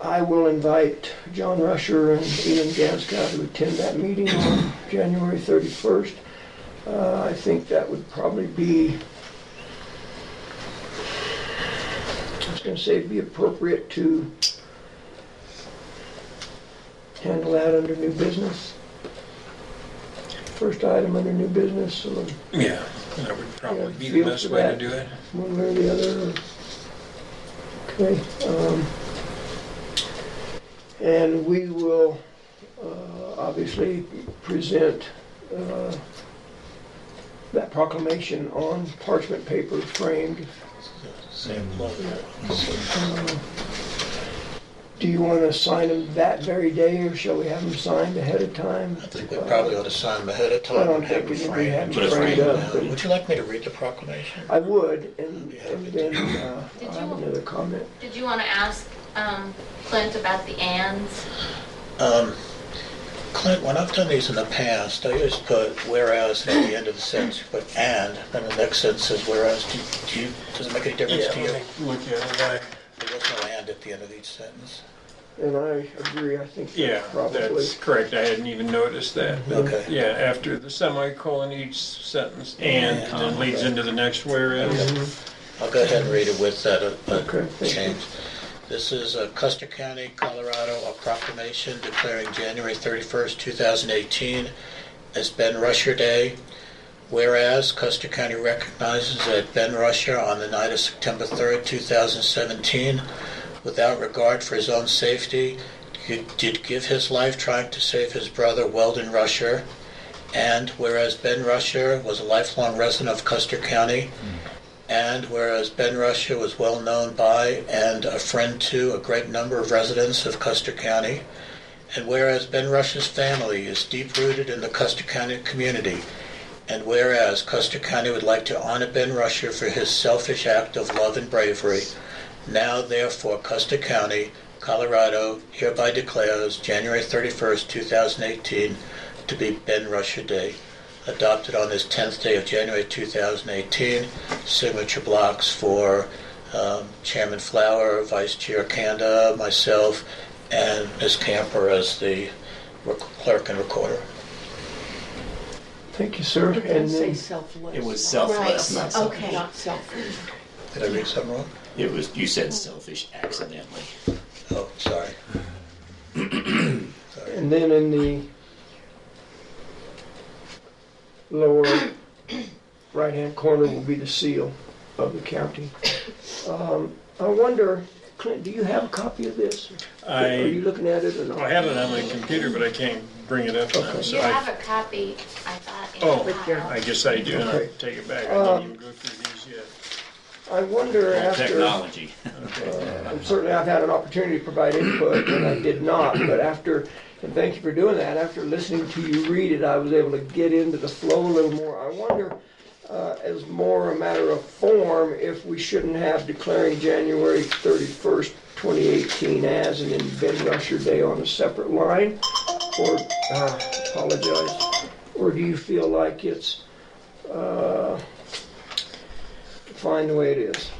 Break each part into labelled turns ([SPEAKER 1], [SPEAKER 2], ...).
[SPEAKER 1] I will invite John Rusher and Ian Gaskow to attend that meeting on January 31st. Uh, I think that would probably be, I was going to say, it'd be appropriate to handle that under new business. First item under new business, so
[SPEAKER 2] Yeah, that would probably
[SPEAKER 1] Yeah,
[SPEAKER 2] be the
[SPEAKER 1] feel
[SPEAKER 2] best
[SPEAKER 1] for
[SPEAKER 2] way to
[SPEAKER 1] that.
[SPEAKER 2] do it.
[SPEAKER 1] one way or the other. Okay. um, And we will uh, obviously present uh, that proclamation on parchment paper framed. Um, Do you want to sign them that very day, or shall we have them signed ahead of time?
[SPEAKER 3] I think we probably ought to sign them ahead of
[SPEAKER 1] I
[SPEAKER 3] time
[SPEAKER 1] don't
[SPEAKER 3] and have them
[SPEAKER 1] think we- we
[SPEAKER 3] framed.
[SPEAKER 1] have them framed up, but-
[SPEAKER 3] Would you like me to read the proclamation?
[SPEAKER 1] I would, and and then uh, I have another comment.
[SPEAKER 4] Did you want to ask um, Clint about the ands?
[SPEAKER 3] Um, Clint, when I've done these in the past, I always put whereas at the end of the sentence, you put and, then the next sentence says whereas. Do you- Do you, does it make any difference to you? There
[SPEAKER 2] Look at it.
[SPEAKER 3] was no and at the end of each sentence.
[SPEAKER 1] And I agree, I think
[SPEAKER 2] Yeah,
[SPEAKER 1] that's probably. Mm-hmm.
[SPEAKER 2] that's correct. I hadn't even noticed that.
[SPEAKER 3] Okay.
[SPEAKER 2] Yeah, after the semicolon each sentence and
[SPEAKER 3] Yeah.
[SPEAKER 2] then leads into the next whereas.
[SPEAKER 1] Mm-hmm.
[SPEAKER 3] I'll go ahead and read it with that uh,
[SPEAKER 1] Okay,
[SPEAKER 3] uh,
[SPEAKER 1] thank you.
[SPEAKER 3] change. This is uh, Custer County, Colorado, a proclamation declaring January 31st, 2018 as Ben Rusher Day. Whereas Custer County recognizes that Ben Rusher on the night of September 3rd, 2017, without regard for his own safety, gi- did give his life trying to save his brother Weldon Rusher. And whereas Ben Rusher was a lifelong resident of Custer County, and whereas Ben Rusher was well known by and a friend to a great number of residents of Custer County, and whereas Ben Rusher's family is deep rooted in the Custer County community, and whereas Custer County would like to honor Ben Rusher for his selfish act of love and bravery, now therefore Custer County, Colorado hereby declares January 31st, 2018 to be Ben Rusher Day adopted on this 10th day of January 2018. Signature blocks for um, Chairman Flower, Vice Chair Kanda, myself, and Ms. Camper as the rec- clerk and recorder.
[SPEAKER 1] Thank you, sir.
[SPEAKER 5] It didn't
[SPEAKER 1] And
[SPEAKER 5] say
[SPEAKER 1] then,
[SPEAKER 5] selfless.
[SPEAKER 6] It was
[SPEAKER 4] Right,
[SPEAKER 6] selfless, not selfish.
[SPEAKER 4] okay.
[SPEAKER 5] Not selfish.
[SPEAKER 3] Did I read something wrong?
[SPEAKER 6] It was, you said selfish accidentally.
[SPEAKER 3] Oh, sorry.
[SPEAKER 1] and then in the lower right-hand corner will be the seal of the county. Um, I wonder, Clint, do you have a copy of this? Are you
[SPEAKER 2] I,
[SPEAKER 1] looking at it or not?
[SPEAKER 2] I have it on my computer, but I can't bring it up now,
[SPEAKER 4] You
[SPEAKER 2] so
[SPEAKER 4] have
[SPEAKER 2] I,
[SPEAKER 4] a copy, I thought, in
[SPEAKER 2] Oh.
[SPEAKER 4] the file.
[SPEAKER 2] I guess I do. and I'll
[SPEAKER 1] Okay.
[SPEAKER 2] take it back. I didn't even go through these yet.
[SPEAKER 1] I wonder after,
[SPEAKER 6] Technology.
[SPEAKER 1] I'm certainly I've had an opportunity to provide input, and I did not, but after, and thank you for doing that, after listening to you read it, I was able to get into the flow a little more. I wonder, uh, as more a matter of form, if we shouldn't have declaring January 31st, 2018 as, and then Ben Rusher Day on a separate line? Or, uh, apologize, or do you feel like it's, uh, fine the way it is?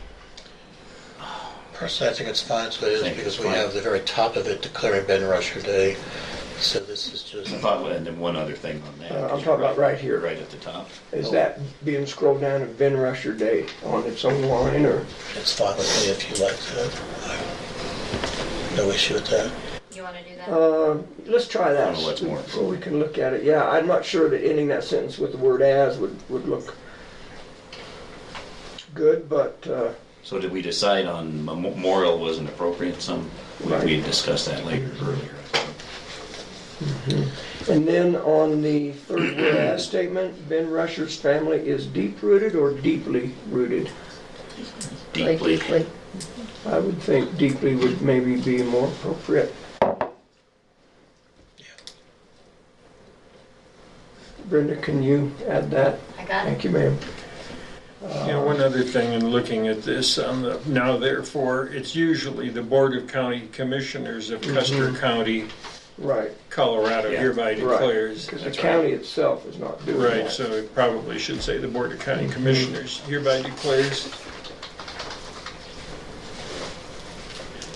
[SPEAKER 3] Personally, I think it's fine, so it
[SPEAKER 6] I
[SPEAKER 3] is,
[SPEAKER 6] think
[SPEAKER 3] because
[SPEAKER 6] it's
[SPEAKER 3] we
[SPEAKER 6] fine.
[SPEAKER 3] have the very top of it declaring Ben Rusher Day. So this is just,
[SPEAKER 6] I thought, and then one other thing on that.
[SPEAKER 1] Uh, I'm
[SPEAKER 6] 'cause
[SPEAKER 1] talking
[SPEAKER 6] you're
[SPEAKER 1] about right here.
[SPEAKER 6] Right at the top.
[SPEAKER 1] Is that being scrolled down to Ben Rusher Day on its own line or?
[SPEAKER 3] it's fine with me if you like that. No issue with that.
[SPEAKER 4] You want to do that?
[SPEAKER 1] Um, let's try that.
[SPEAKER 6] I don't know what's more
[SPEAKER 1] So we can look at it. Yeah, I'm not sure that ending that sentence with the word as would, would look good, but, uh,
[SPEAKER 6] So did we decide on memorial wasn't appropriate? Some, we, we
[SPEAKER 1] Right.
[SPEAKER 6] discussed that later earlier.
[SPEAKER 1] and then on the third whereas statement, Ben Rusher's family is deep rooted or deeply rooted?
[SPEAKER 6] Deeply.
[SPEAKER 1] I would think deeply would maybe be more appropriate. Brenda, can you add that?
[SPEAKER 4] I got it.
[SPEAKER 1] Thank you, ma'am.
[SPEAKER 2] Yeah, one other thing in looking at this, on the, now therefore, it's usually the Board of County Commissioners of
[SPEAKER 1] Mm-hmm.
[SPEAKER 2] Custer County,
[SPEAKER 1] Right.
[SPEAKER 2] Colorado
[SPEAKER 6] Yeah.
[SPEAKER 2] hereby
[SPEAKER 1] Right,
[SPEAKER 2] declares.
[SPEAKER 1] Because the county itself is not doing that.
[SPEAKER 2] Right, so it probably should say the Board of County Commissioners hereby declares